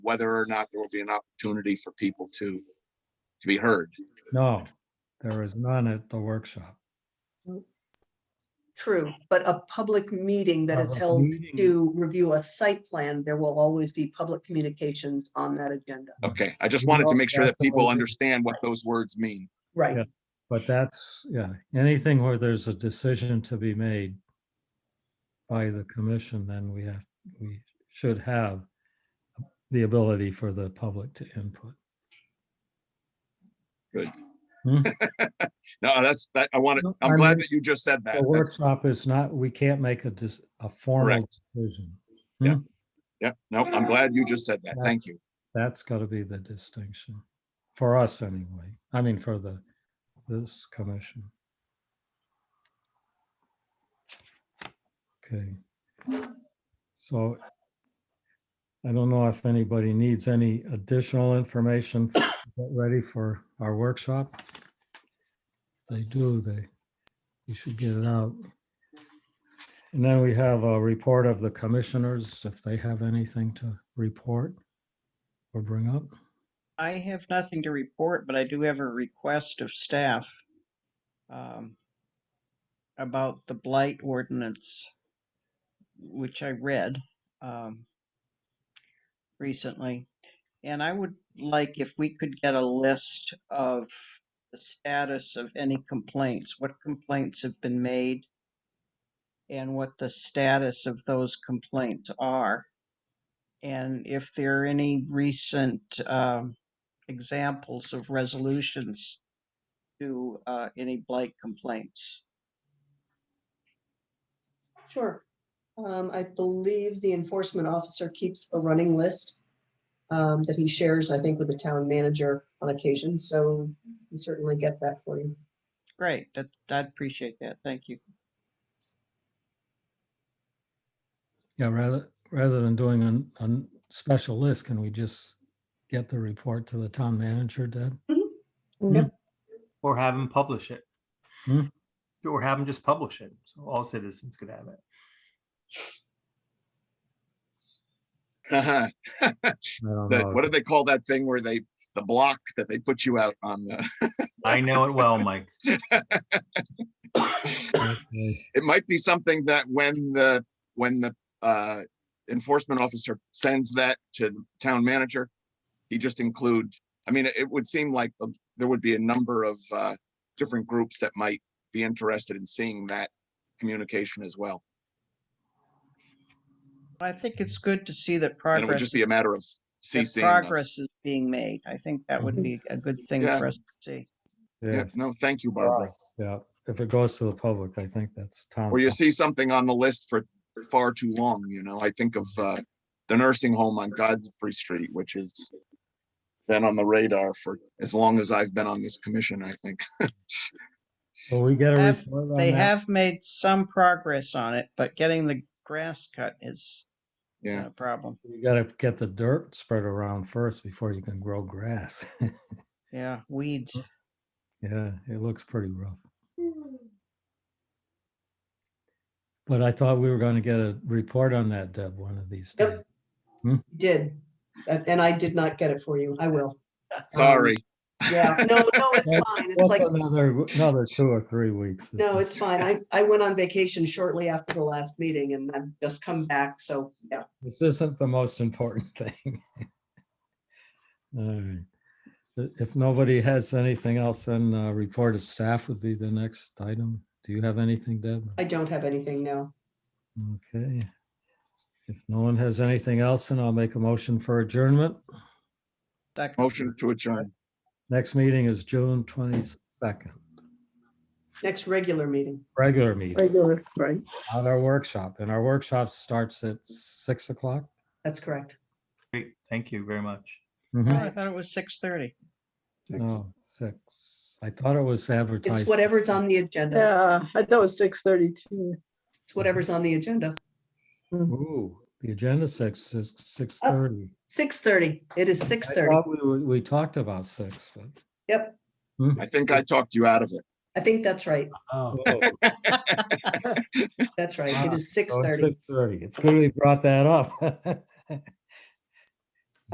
whether or not there will be an opportunity for people to, to be heard. No, there is none at the workshop. True, but a public meeting that is Public held meeting. to review a site plan, there will always be public communications on that agenda. Okay, I just wanted to make sure that people Absolutely. understand what those words mean. Right, Yeah. But that's, yeah, anything where there's a decision to be made by the commission, then we have, we should have the ability for the public to input. No, that's, that, I wanted, No, I'm I glad mean, that you just said that. The That's workshop is not, we can't make a, dis- a formal Correct. decision. Yep, no, I'm glad you just said that. Thank That's- you. That's got to be the distinction for us anyway. I mean, for the, this commission. Okay. So I don't know if anybody needs any additional information f- to get ready for our workshop. They do, they, you should get it out. And then we have a report of the commissioners, if they have anything to report or bring up. I have nothing to report, but I do have a request of staff um, about the blight ordinance, which I read um, recently. And I would like if we could get a list of the status of any complaints, what complaints have been made, and what the status of those complaints are. And if there are any recent um, examples of resolutions to uh, any blight complaints. sure. Um, I believe the enforcement officer keeps a running list um, that he shares, I think, with the town manager on occasion, so we certainly get that for you. Great, that, I'd appreciate that. Thank you. Yeah, rather, rather than doing an, a special list, can we just get the report to the town manager, Deb? Or have them publish it. Hmm. Or have them just publish it, so all citizens could have it. Uh-huh. I don't That, know. what do they call that thing where they, the block that they put you out on? the- I know it well, Mike. Okay. It might be something that when the, when the, uh, enforcement officer sends that to the town manager, he just include, I mean, it would seem like uh, there would be a number of, uh, different groups that might be interested in seeing that communication as well. I think it's good to see that And it would progress, just be a matter of that CCing us. progress is being made. I think that would Mhm. be a good thing Yeah. for us to see. Yeah, Yes, no, thank you, Barbara. Yeah, if it goes to the public, I think that's town. Or you see something on the list for far too long, you know, I think of, uh, the nursing home on Godfrey Street, which has been on the radar for as long as I've been on this commission, I think. Will we get a Have- report on They that? have made some progress on it, but getting the grass cut is Yeah, a problem. You gotta get the dirt spread around first before you can grow grass. Yeah, weeds. Yeah, it looks pretty rough. But I thought we were gonna get a report on that, Deb, one of these Yep. days. Did, and and I did not get it for you, I will. Um, sorry. Yeah, no, no, it's fine, it's What's like. Another, another two or three weeks. this No, is- it's fine. I, I went on vacation shortly after the last meeting and I've just come back, so, yeah. This isn't the most important thing. All right. I- If nobody has anything else, then uh, report of staff would be the next item. Do you have anything, Deb? I don't have anything now. Okay. If no one has anything else, then I'll make a motion for adjournment. That- Motion to adjourn. Next meeting is June twenty-second, Next regular meeting. regular meeting, Regular, right. not our workshop. And our workshop starts at six o'clock. That's correct. Great, thank you very much. Oh, Mhm. I thought it was six thirty. No, six. I thought it was advertised. It's whatever's on the agenda. Yeah, I thought it was six thirty-two. It's whatever's on the agenda. Ooh, the agenda six is six thirty. Six thirty. It is Oh, six thirty. We, were- we talked about six, but. Yep. I think I talked you out of it. I think that's right. Six Ah, That's right. It is six thirty. thirty. It's good we brought that up.